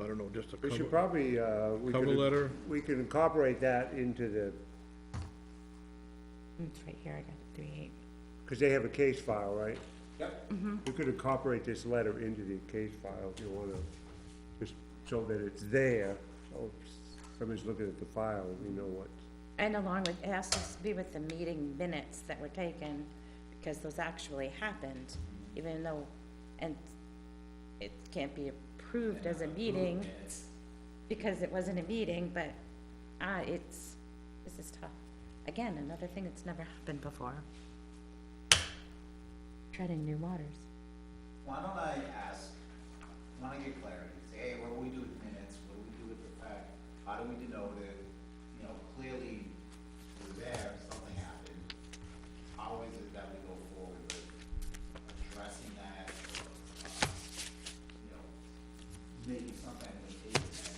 I don't know, just a We should cover, probably, uh, we cover could, letter? we can incorporate that into the, It's right here, I got it, three eight. because they have a case file, right? Mm-hmm. Yep. We could incorporate this letter into the case file if you wanna, just so that it's there, so if somebody's looking at the file, we know what. And along with, it has to be with the meeting minutes that were taken, because those actually happened, even though, and it can't be approved as a meeting, because it wasn't a meeting, but, ah, it's, this is tough. Again, another thing that's never happened before. Treading new waters. Why don't I ask, when I get clarity, say, hey, what do we do with minutes, what do we do with the fact, how do we denote it? You know, clearly, we're there, something happened, how is it that we go forward with addressing that? or, You know, maybe something we take that,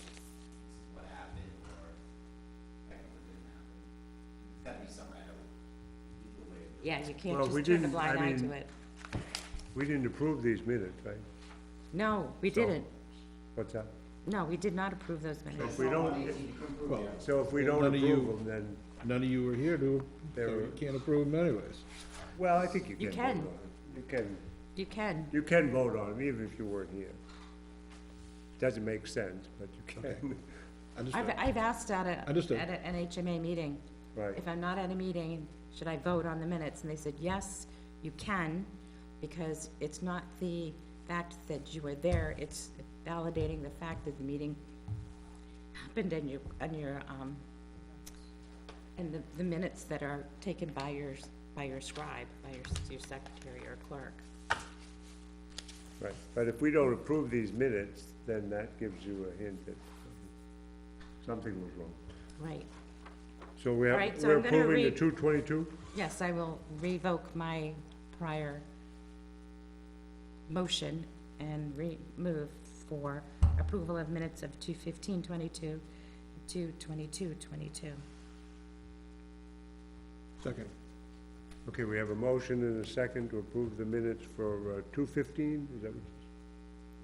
what happened, or, like, what didn't happen? It's gotta be some kind of legal way of Yeah, you can't Well, we just turn a didn't- blind I eye to mean- it. We didn't approve these minutes, right? No, we didn't. What's that? No, we did not approve those minutes. If we don't, so if we don't None of you- approve them, then, None of you were here to, so There- you can't approve them anyways. well, I think you You can can. vote on it. You can, You can. you can vote on them, even if you weren't here. Doesn't make sense, but you can, I just, I've, I've asked at a, Understood. at an HMA meeting, right? if I'm not at a meeting, should I vote on the minutes? And they said, yes, you can, because it's not the fact that you were there, it's validating the fact that the meeting happened and you, and your, um, and the, the minutes that are taken by your, by your scribe, by your, your secretary or clerk. Right, but if we don't approve these minutes, then that gives you a hint that something was wrong. Right. So we have, All right, so we're I'm gonna approving the read- two twenty-two? Yes, I will revoke my prior motion and remove for approval of minutes of two fifteen twenty-two, two twenty-two twenty-two. second, Okay, we have a motion and a second to approve the minutes for uh, two fifteen, is that what,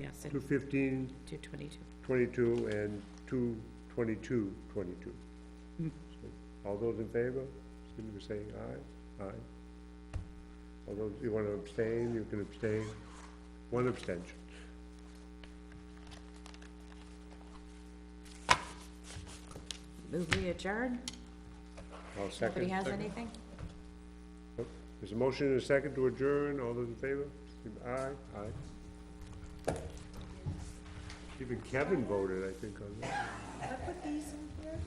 Yes, two fifteen two twenty-two. twenty-two and two twenty-two twenty-two. All those in favor, seem to be saying aye, aye. All those, you wanna abstain, you can abstain, one abstention. Move we adjourn? All second. Nobody has anything? There's a motion and a second to adjourn, all those in favor? Aye? Aye. Even Kevin voted, I think, on that. I put these in here?